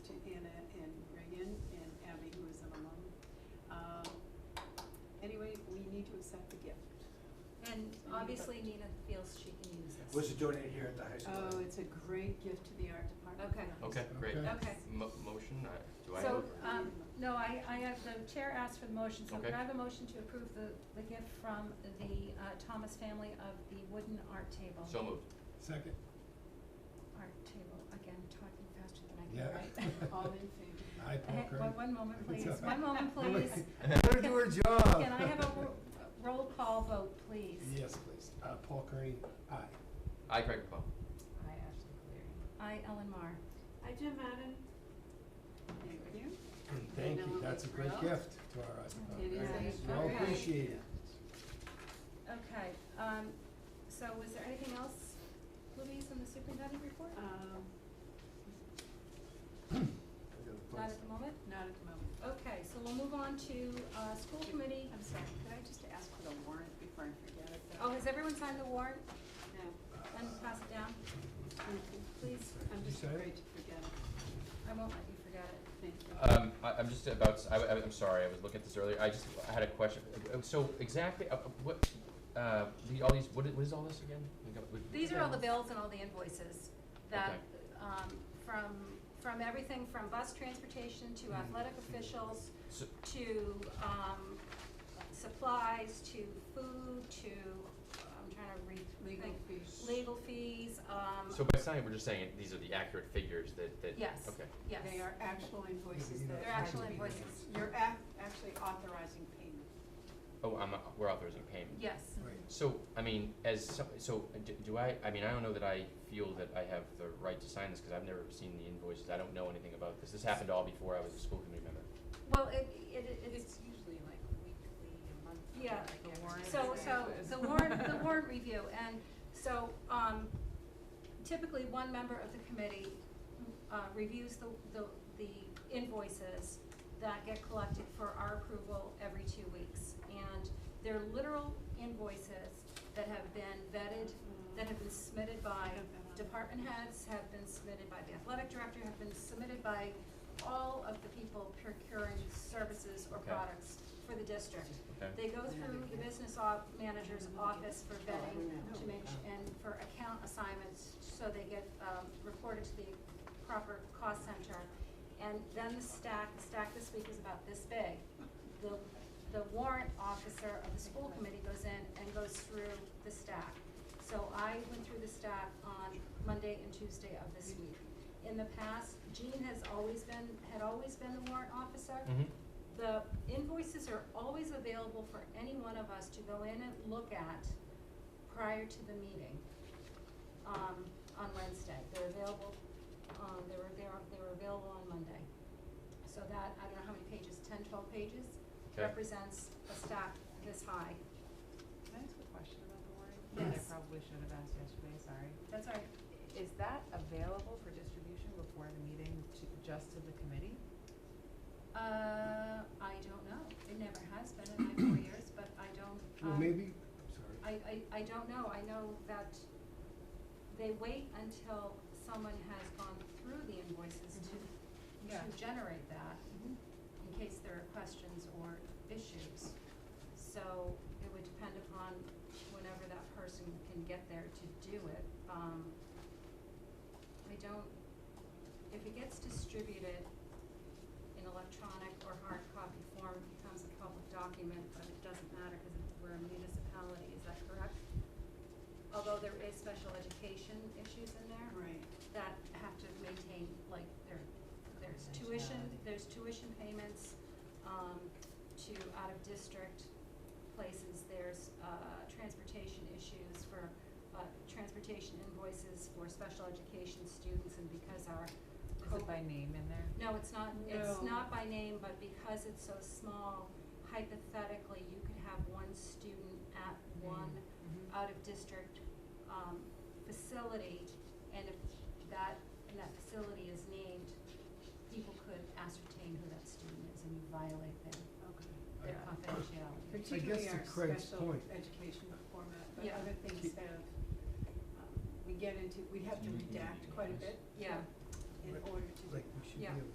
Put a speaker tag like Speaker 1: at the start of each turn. Speaker 1: Uh,
Speaker 2: obviously Nina feels she can use this.
Speaker 3: Was it donated here at the high school?
Speaker 1: Oh, it's a great gift to the art department.
Speaker 2: Okay.
Speaker 4: Okay, great.
Speaker 3: Okay.
Speaker 2: Okay.
Speaker 4: Mo- motion, uh, do I?
Speaker 2: So,
Speaker 4: move?
Speaker 2: um, no, I, I have, the chair asked for the motion, so can
Speaker 4: Okay.
Speaker 2: I have a motion to approve the, the gift from the, uh, Thomas family of the wooden art table?
Speaker 4: So moved.
Speaker 5: Second.
Speaker 2: Art table, again, talking faster than I
Speaker 5: Yeah.
Speaker 2: can write.
Speaker 1: All in favor?
Speaker 5: Aye, Paul
Speaker 2: Hey,
Speaker 5: Craig.
Speaker 2: one- one moment,
Speaker 5: It's
Speaker 2: please.
Speaker 5: all
Speaker 2: One moment,
Speaker 5: right.
Speaker 2: please.
Speaker 5: Let her do her job.
Speaker 2: Can I have a ro- roll call vote, please?
Speaker 5: Yes, please. Uh, Paul Kearney, aye.
Speaker 4: I, Craig McClung.
Speaker 1: I, Ashley Cleary.
Speaker 2: I, Ellen Mar.
Speaker 6: I, Jim Madden.
Speaker 1: Thank you.
Speaker 5: Thank
Speaker 1: now
Speaker 5: you.
Speaker 1: we'll
Speaker 5: That's a
Speaker 1: be
Speaker 5: great
Speaker 1: thrilled.
Speaker 5: gift to our art
Speaker 1: It
Speaker 5: department.
Speaker 1: is a
Speaker 2: Okay.
Speaker 5: Well
Speaker 1: very.
Speaker 2: Okay.
Speaker 5: appreciated.
Speaker 2: Okay, um, so was there anything else, Louise, on the superintendent report?
Speaker 1: Um,
Speaker 2: Not at the moment?
Speaker 1: not at the moment.
Speaker 2: Okay, so we'll move on to, uh, school committee.
Speaker 1: I'm sorry, could I just ask for the warrant before I forget it? though?
Speaker 2: Oh, has everyone signed the warrant?
Speaker 1: No,
Speaker 2: Then pass it down,
Speaker 1: thank you.
Speaker 2: please.
Speaker 1: I'm
Speaker 5: You
Speaker 1: just
Speaker 5: said it?
Speaker 1: afraid to forget it.
Speaker 2: I won't let you forget it.
Speaker 1: Thank you.
Speaker 5: Uh,
Speaker 4: Um, I, I'm just about, s- I, am sorry, I was looking at this earlier, I just, I had a question, Uh, so exactly, uh, uh, what, uh, the, all these, what is, what is all this again? uh, We got- we-
Speaker 2: These are all the bills and all the invoices that, um, from, from everything from bus transportation to
Speaker 4: Mm-hmm.
Speaker 2: athletic officials
Speaker 4: So,
Speaker 2: to, um, supplies to food to, I'm trying to read,
Speaker 1: Legal
Speaker 2: think,
Speaker 1: fees.
Speaker 2: legal fees, um,
Speaker 4: so by signing, we're just saying these are the accurate figures that, that,
Speaker 2: Yes.
Speaker 4: okay,
Speaker 2: yes.
Speaker 1: They are actual invoices
Speaker 5: You know,
Speaker 1: that.
Speaker 2: They're
Speaker 5: it's hard
Speaker 2: actual
Speaker 5: to be
Speaker 2: invoices.
Speaker 5: nice.
Speaker 1: You're ac- actually authorizing payment.
Speaker 4: oh, I'm, not- we're authorizing payment.
Speaker 2: Yes.
Speaker 5: Right.
Speaker 4: So, I mean, as, some- so, do, do I, I mean, I don't know that I feel that I have the right to sign this, cause I've never seen the invoices, I don't know anything about this, this happened all before I was a school committee member.
Speaker 2: Well, it, it, it's,
Speaker 6: It's usually like weekly, a month.
Speaker 2: Yeah.
Speaker 6: like every
Speaker 2: so,
Speaker 6: Tuesday.
Speaker 2: so, the warrant, the warrant review, and so, um, typically, one member of the committee, uh, reviews the, the, the invoices that get collected for our approval every two weeks, and they're literal invoices that have been vetted, that have been submitted by department heads, have been submitted by the athletic director, have been submitted by all of the people procuring services or
Speaker 4: Okay.
Speaker 2: products for the district.
Speaker 4: Okay.
Speaker 2: They go through the business op, manager's office for vetting to make, su- and for account assignments, so they get, um, reported to the proper cost center. And then the stack, the stack this week is about this big. The, the warrant officer of the school committee goes in and goes through the stack. So I went through the stack on Monday and Tuesday of this week. In the past, Jean has always been, had always been the warrant officer.
Speaker 4: Mhm.
Speaker 2: The invoices are always available for any one of us to go in and look at prior to the meeting, um, on Wednesday. They're available, um, they were, they were, they were available on Monday. So that, I don't know how many pages, ten, twelve pages,
Speaker 4: Okay.
Speaker 2: represents a stack this high.
Speaker 7: Can I ask a question about the warrant?
Speaker 2: Yes.
Speaker 7: I probably should have asked yesterday, sorry.
Speaker 2: That's all right.
Speaker 7: Is that available for distribution before the meeting to, just to the committee?
Speaker 2: Uh, I don't know. It never has been in my four years, but I don't,
Speaker 5: Well,
Speaker 2: um,
Speaker 5: maybe, I'm sorry.
Speaker 2: I, I, I don't know, I know that they wait until someone has gone through the invoices to,
Speaker 7: Yeah.
Speaker 2: to generate that, in case there are questions or issues. So it would depend upon whenever that person can get there to do it, um, I don't, if it gets distributed in electronic or hard copy form, it becomes a public document, but it doesn't matter, cause it- we're a municipality, is that correct? Although there is special education issues in there
Speaker 1: Right.
Speaker 2: that have to maintain, like, there, there's tuition,
Speaker 7: Confidentiality.
Speaker 2: there's tuition payments, um, to out-of-district places, there's, uh, transportation issues for, uh, transportation invoices for special education students, and because our
Speaker 7: Is it by name in there?
Speaker 2: no, it's not, it's
Speaker 1: No.
Speaker 2: not by name, but because it's so small, hypothetically, you could have one student at one
Speaker 7: Mhm.
Speaker 2: out-of-district, um, facility, and if that, and that facility is named, people could ascertain who that student is, and you violate their,
Speaker 1: Okay.
Speaker 2: their
Speaker 5: I-
Speaker 2: confidentiality.
Speaker 1: Particularly
Speaker 5: to
Speaker 1: our
Speaker 5: Craig's
Speaker 1: special
Speaker 5: point-
Speaker 1: education format, but
Speaker 2: Yeah.
Speaker 1: other things have, um, we get into, we have to redact quite a bit
Speaker 2: Yeah.
Speaker 1: in
Speaker 5: Right.
Speaker 1: order to do
Speaker 5: Like, we should be
Speaker 2: Yeah.
Speaker 5: able to